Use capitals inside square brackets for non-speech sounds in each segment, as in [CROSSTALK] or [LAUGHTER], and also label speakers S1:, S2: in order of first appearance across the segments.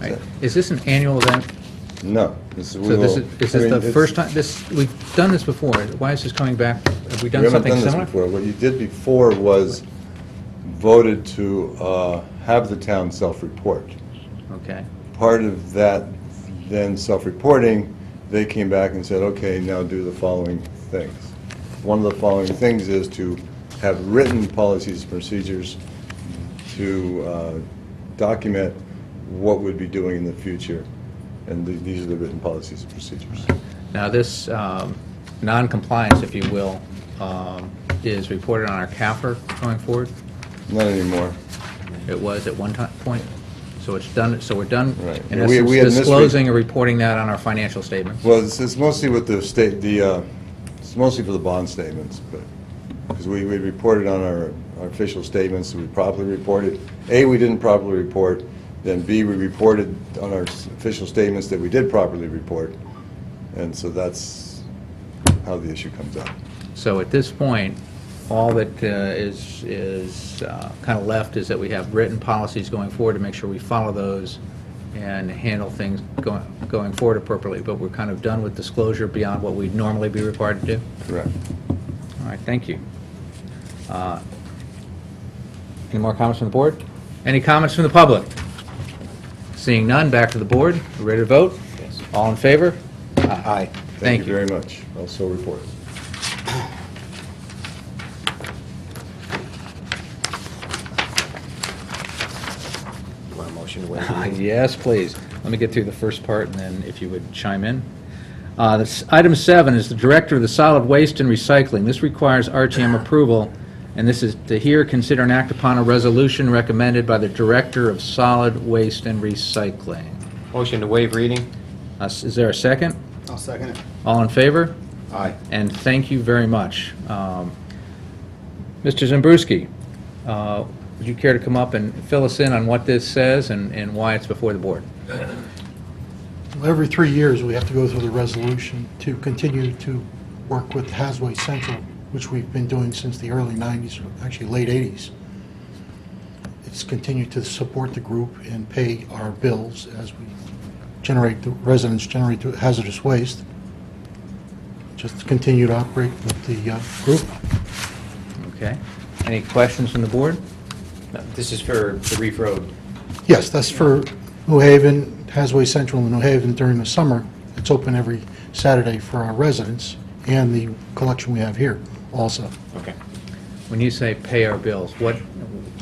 S1: Right. Is this an annual event?
S2: No. this- we
S1: So this is, is
S2: will- I mean,
S1: this the
S2: it's-
S1: first time, this, we've done this before. Why is this coming back? Have we
S2: We
S1: done
S2: haven't
S1: something
S2: done this
S1: similar?
S2: before. What you did before was voted to uh, have the town self-report.
S1: Okay,
S2: Part of that then self-reporting, they came back and said, okay, now do the following things. One of the following things is to have written policies, and procedures to uh, document what we'd be doing in the future. And th- these are the written policies and procedures.
S1: now this, um, non-compliance, if you will, um, is reported on our CAFR going forward?
S2: Not anymore.
S1: It was at one time, point, so it's done, so we're done,
S2: Right.
S1: in
S2: We-
S1: essence,
S2: we had misread-
S1: disclosing and reporting that on our financial statements.
S2: Well, it's, it's mostly with the state, the, uh, it's mostly for the bond statements, but, because we, we reported on our, our official statements, we properly reported. A, we didn't properly report, then B, we reported on our s- official statements that we did properly report. And so that's how the issue comes up.
S1: So at this point, all that uh, is, is kind of left is that we have written policies going forward to make sure we follow those and handle things going, going forward appropriately, but we're kind of done with disclosure beyond what we'd normally be required to do?
S2: Correct.
S1: All right, thank you. Uh, Any more comments from the board? Any comments from the public? Seeing none, back to the board. We Ready to vote? Yes. All in favor? Aye. Thank you.
S2: very much. Also reported.
S3: You want a motion to waive the
S1: Uh, [LAUGHS]
S3: reading?
S1: Yes, please. Let me get through the first part, and then if you would chime in. Uh, this- Item seven is the Director of the Solid Waste and Recycling. This requires RTM approval, and this is to hear, consider, and act upon a resolution recommended by the Director of Solid Waste and Recycling.
S3: Motion to waive reading?
S1: Uh, s- Is there a second?
S4: I'll second it.
S1: All in favor?
S3: Aye.
S1: And thank you very much. Um, Mr. Zimbruski, uh, would you care to come up and fill us in on what this says and and why it's before the board?
S5: Every three years, we have to go through the resolution to continue to work with Hasway Central, which we've been doing since the early 90s, or actually late 80s. It's continued to support the group and pay our bills as we generate, the residents generate the hazardous waste. Just to continue to operate with the uh, group.
S1: Okay. Any questions from the board?
S3: No, This is for the Reef Road.
S5: Yes, that's for New Haven, Hasway Central in New Haven during the summer. It's open every Saturday for our residents and the collection we have here also.
S3: Okay.
S1: When you say pay our bills, what,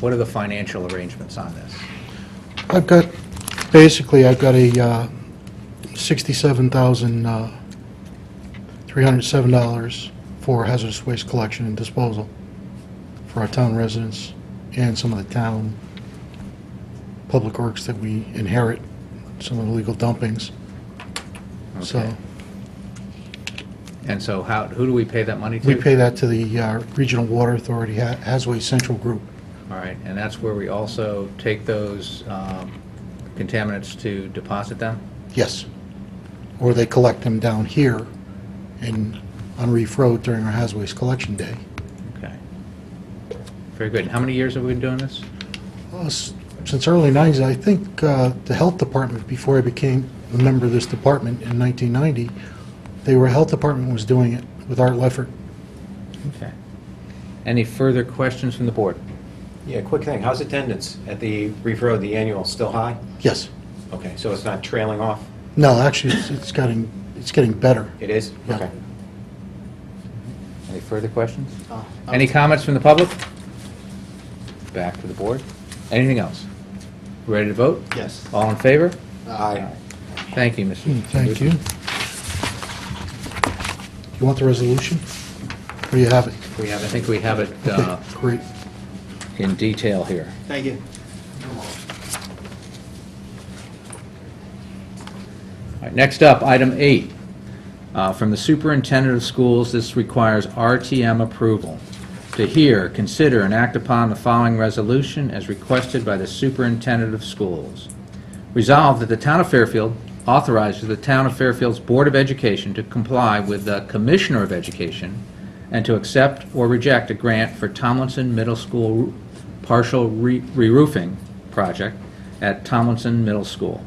S1: what are the financial arrangements on this?
S5: I've got, basically, I've got a uh, $67,307 for hazardous waste collection and disposal for our town residents and some of the town public works that we inherit, some of the legal dumpings.
S1: Okay.
S5: So
S1: And so how, who do we pay that money to?
S5: we pay that to the uh, Regional Water Authority, Ha- Hasway Central Group.
S1: All right, and that's where we also take those um, contaminants to deposit them?
S5: Yes. Or they collect them down here in, on Reef Road during our Hasway's Collection Day.
S1: Okay. Very good. And How many years have we been doing this?
S5: Well, s- Since early 90s, I think uh, the Health Department, before I became a member of this department in 1990, they were, Health Department was doing it with Art Leffert.
S1: Okay. Any further questions from the board?
S3: Yeah, quick thing, how's attendance at the Reef Road, the annual, still high?
S5: Yes.
S3: Okay, so it's not trailing off?
S5: No, actually, it's- it's getting, it's getting better.
S3: It is?
S5: Yeah.
S3: Okay.
S1: Any further questions?
S4: I'll- I'll-
S1: Any comments from the public? Back to the board. Anything else? Ready to vote?
S4: Yes.
S1: All in favor?
S3: Aye.
S1: Thank you, Mr.
S5: Hmm, Thank you. You want the resolution? Or you have it?
S1: We have, I think we have it uh,
S5: Okay, Great.
S1: in detail here.
S4: Thank you.
S1: All right, Next up, item eight. Uh, From the superintendent of schools, this requires RTM approval. To hear, consider, and act upon the following resolution as requested by the superintendent of schools. Resolved that the town of Fairfield authorizes the town of Fairfield's Board of Education to comply with the Commissioner of Education and to accept or reject a grant for Tomlinson Middle School partial re- re-roofing project at Tomlinson Middle School.